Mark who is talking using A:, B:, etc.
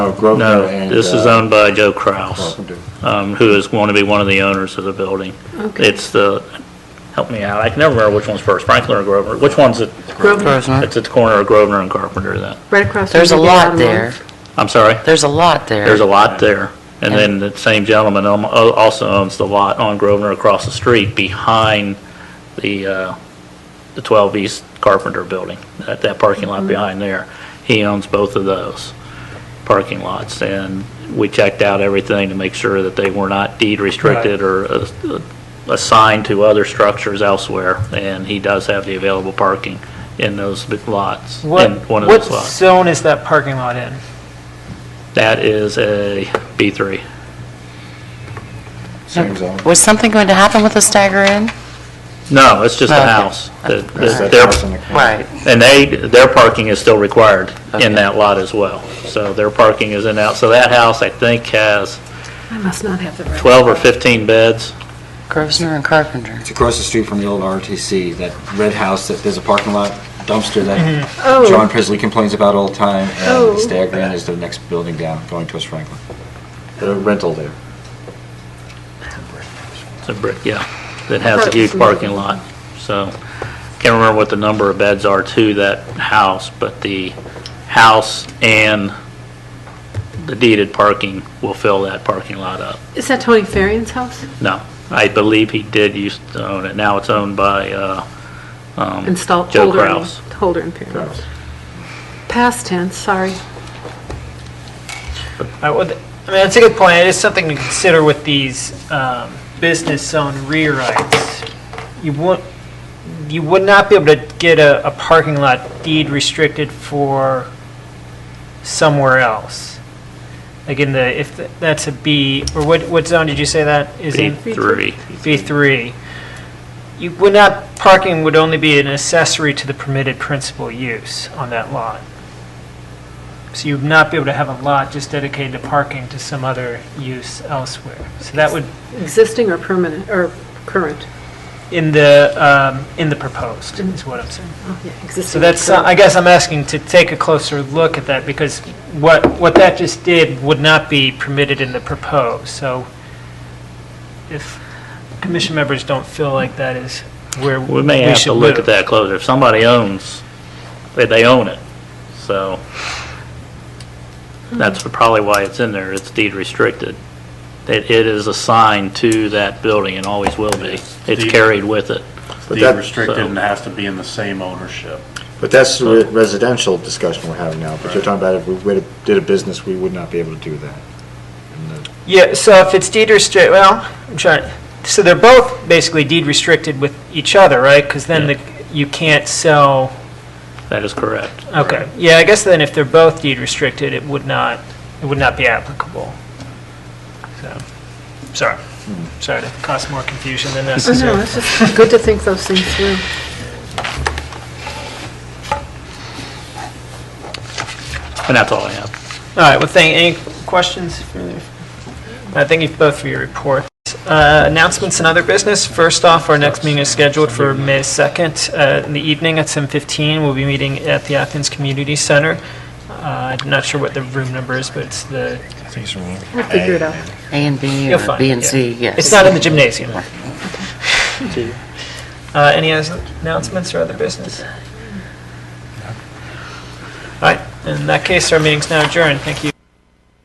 A: No, Grosvenor
B: No,
A: and,
B: this is
A: uh,
B: owned by Joe Kraus,
A: Carpenter.
B: um, who is going to be one of the owners of the building.
C: Okay.
B: It's the, help me out, I can never remember which one's first, Franklin or Grosvenor, which one's it?
C: Grosvenor.
B: It's at the corner of Grosvenor and Carpenter then.
C: Right across. from
D: There's a
C: Big
D: lot
C: Bottom
D: there.
B: I'm sorry,
D: There's a lot there.
B: there's a lot there. And then the same gentleman al- also owns the lot on Grosvenor across the street behind the, uh, the 12 East Carpenter building, that, that parking lot behind there. He owns both of those parking lots, and we checked out everything to make sure that they were not deed restricted or uh, assigned to other structures elsewhere, and he does have the available parking in those big lots, in
E: What,
B: one of
E: what
B: those lots.
E: zone is that parking lot in?
B: That is a B3.
A: Same zone.
D: Was something going to happen with the stagger in?
B: No, it's just a
D: Okay.
B: house. that-
A: That's that
B: that their-
A: house in the corner.
D: Right.
B: And they, their parking is still required in
D: Okay.
B: that lot as well. So their parking is in out, so that house, I think, has
C: I must not have the right.
B: 12 or 15 beds.
D: Grosvenor and Carpenter.
A: It's across the street from the old RTC, that red house that, there's a parking lot dumpster that John
C: Oh,
A: Presley complains about all the time, and
C: Oh.
A: Stag Inn is the next building down, going towards Franklin. The rental there.
B: It's a brick, yeah, that has a huge parking lot. So, can't remember what the number of beds are to that house, but the house and the deeded parking will fill that parking lot up.
C: is that Tony Farian's house?
B: No, I believe he did used to own it. Now it's owned by, uh, um,
C: Installed.
B: Joe Kraus.
C: Holder and Perrin. Past tense, sorry.
E: I would- I mean, that's a good point. It is something to consider with these um, business zone rewrites. You would, you would not be able to get a, a parking lot deed restricted for somewhere else. Like in the, if th- that's a B, or what, what zone did you say that is in?
B: B3.
E: B3. You would not, parking would only be an accessory to the permitted principal use on that lot. So you would not be able to have a lot just dedicated to parking to some other use elsewhere. So that would,
C: Existing or permanent, or current?
E: in the, um, in the proposed, is what I'm saying.
C: Oh, yeah,
E: So
C: Existing. or
E: that's, uh,
C: current.
E: I guess I'm asking to take a closer look at that, because what, what that just did would not be permitted in the proposed, so if commission members don't feel like that is where we should
B: We
E: move.
B: may have to look at that closer. If somebody owns, they- they own it, so that's probably why it's in there. It's deed restricted. It it is assigned to that building and always will be. It's carried with it.
F: But
A: that-
F: deed restricted
B: so-
F: and it has to be in the same ownership.
A: But that's the re- residential discussion we're having now, but you're talking about if we would've- did a business, we would not be able to do that. And the-
E: Yeah, so if it's deed restrict, well, I'm trying, so they're both basically deed restricted with each other, right? Because then
B: Yeah.
E: the, you can't sell,
B: That is correct.
E: okay. Yeah, I guess then if they're both deed restricted, it would not, it would not be applicable. So, sorry, sorry to cause more confusion than
C: Oh, no,
E: necessary.
C: it's just good to think those things through.
B: And that's all I have.
E: All right, well, thank, any questions? I thank you both for your reports. Uh, Announcements and other business. First off, our next meeting is scheduled for May 2nd uh, in the evening at 7:15. We'll be meeting at the Athens Community Center. Uh, I'm not sure what the room number is, but it's the,
C: We'll figure it out.
D: A and B
E: You'll
D: or
E: find
D: B
E: it,
D: and
E: yeah.
D: C, yes.
E: it's not in the gymnasium. Uh, Any other announcements or other business? All right, in that case, our meeting's now adjourned. Thank you.